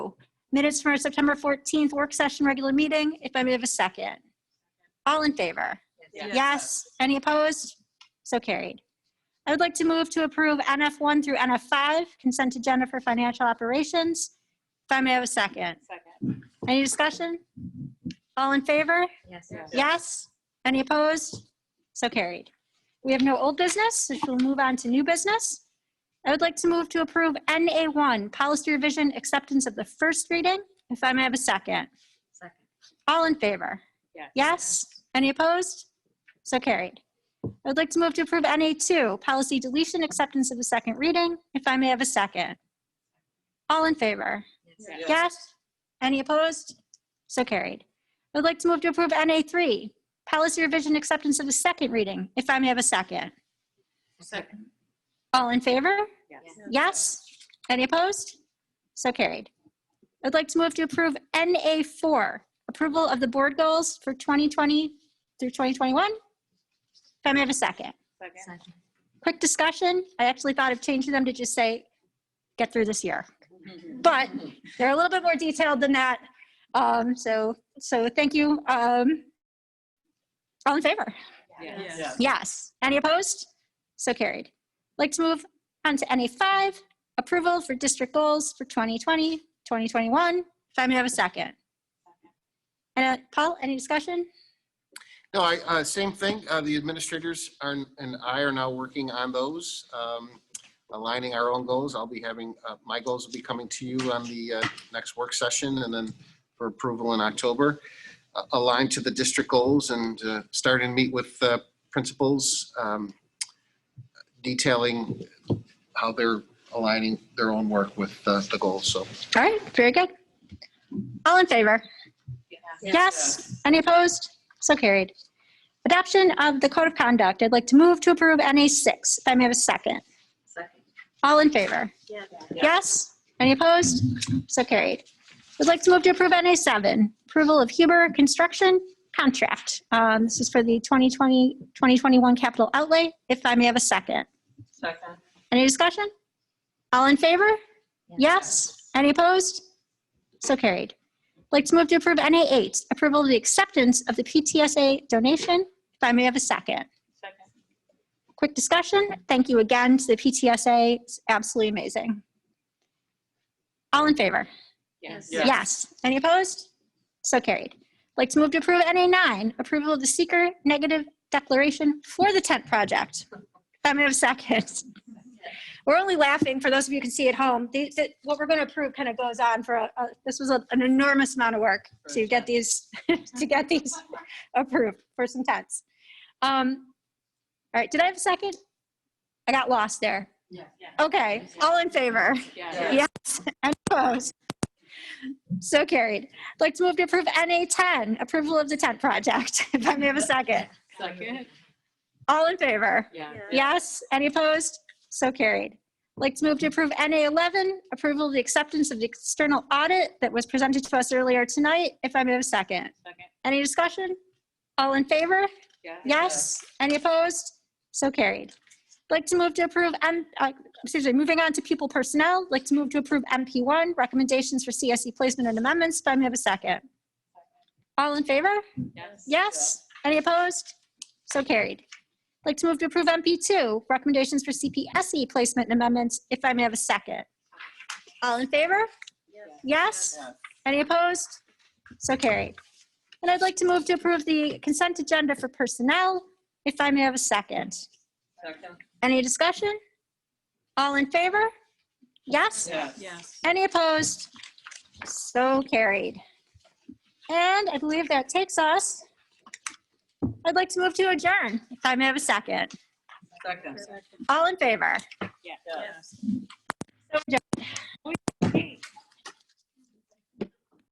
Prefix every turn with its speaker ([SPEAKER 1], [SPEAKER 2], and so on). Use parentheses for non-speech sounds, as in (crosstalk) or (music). [SPEAKER 1] Minutes from our September 14th work session regular meeting, if I may have a second. All in favor?
[SPEAKER 2] Yes.
[SPEAKER 1] Yes. Any opposed? So carried. I would like to move to approve NF1 through NF5 consent agenda for financial operations. If I may have a second.
[SPEAKER 2] Second.
[SPEAKER 1] Any discussion? All in favor?
[SPEAKER 2] Yes.
[SPEAKER 1] Yes. Any opposed? So carried. We have no old business, which we'll move on to new business. I would like to move to approve NA1, policy revision acceptance of the first reading. If I may have a second.
[SPEAKER 2] Second.
[SPEAKER 1] All in favor? Yes. Any opposed? So carried. I would like to move to approve NA2, policy deletion, acceptance of the second reading, if I may have a second. All in favor?
[SPEAKER 2] Yes.
[SPEAKER 1] Yes. Any opposed? So carried. I would like to move to approve NA3, policy revision, acceptance of the second reading, if I may have a second.
[SPEAKER 2] Second.
[SPEAKER 1] All in favor?
[SPEAKER 2] Yes.
[SPEAKER 1] Yes. Any opposed? So carried. I'd like to move to approve NA4, approval of the board goals for 2020 through 2021. If I may have a second.
[SPEAKER 2] Second.
[SPEAKER 1] Quick discussion. I actually thought of changing them to just say, get through this year.
[SPEAKER 2] Mm-hmm.
[SPEAKER 1] But they're a little bit more detailed than that. Um, So, so thank you. Um, All in favor?
[SPEAKER 2] Yes.
[SPEAKER 1] Yes. Any opposed? So carried. Like to move on to NA5, approval for district goals for 2020, 2021. If I may have a second. And uh, Paul, any discussion?
[SPEAKER 3] No, I, uh, same thing. Uh, the administrators are, and I are now working on those, um, aligning our own goals. I'll be having, uh, my goals will be coming to you on the, uh, next work session and then for approval in October. Uh, Align to the district goals and, uh, start and meet with, uh, principals, um, detailing how they're aligning their own work with, uh, the goals. So
[SPEAKER 1] All right, very good. All in favor? Yes. Any opposed? So carried. Adoption of the code of conduct. I'd like to move to approve NA6. If I may have a second.
[SPEAKER 2] Second.
[SPEAKER 1] All in favor? Yes. Any opposed? So carried. Would like to move to approve NA7, approval of Huber Construction Contract. Um, This is for the 2020, 2021 capital outlay, if I may have a second.
[SPEAKER 2] Second.
[SPEAKER 1] Any discussion? All in favor? Yes. Any opposed? So carried. Like to move to approve NA8, approval of the acceptance of the PTSA donation, if I may have a second.
[SPEAKER 2] Second.
[SPEAKER 1] Quick discussion. Thank you again to the PTSA. It's absolutely amazing. All in favor?
[SPEAKER 2] Yes.
[SPEAKER 4] Yes.
[SPEAKER 1] Yes. Any opposed? So carried. Like to move to approve NA nine, approval of the seeker negative declaration for the tent project. If I may have a second. We're only laughing for those of you who can see at home. The- the- What we're going to approve kind of goes on for, a- a- this was a- an enormous amount of work to get these, (laughs) to get these approved for some tents. Um, All right, did I have a second? I got lost there.
[SPEAKER 2] Yes. Yes.
[SPEAKER 1] Okay, all in favor?
[SPEAKER 2] Yes.
[SPEAKER 1] Yes, and opposed. So carried. I'd Like to move to approve NA 10, approval of the tent project. (laughs) If I may have a second.
[SPEAKER 2] Second.
[SPEAKER 1] All in favor?
[SPEAKER 2] Oh, Yeah.
[SPEAKER 1] Yes, any opposed? So carried. I'd Like to move to approve NA 11, approval of the acceptance of the external audit that was presented to us earlier tonight. If I may have a second.
[SPEAKER 2] Second.
[SPEAKER 1] Any discussion? All in favor? Yes. Any opposed? So carried. Like to move to approve M, uh, excuse me, moving on to pupil personnel, like to move to approve MP1, recommendations for CSE placement and amendments. If I may have a second. All in favor?
[SPEAKER 2] Yes.
[SPEAKER 1] Yes. Any opposed? So carried. Like to move to approve MP2, recommendations for CPSE E placement and amendments. If I may have a second. All in favor? Yes. Any opposed? So carried. And I'd like to move to approve the consent agenda for personnel, if I may have a second.
[SPEAKER 2] Second.
[SPEAKER 1] Any discussion? All in favor? Yes?
[SPEAKER 2] Yes.
[SPEAKER 1] Any opposed? So carried. And I believe that takes us. I'd like to move to adjourn, if I may have a second.
[SPEAKER 2] Second.
[SPEAKER 1] All in favor?
[SPEAKER 2] Yes.
[SPEAKER 1] So adjourned.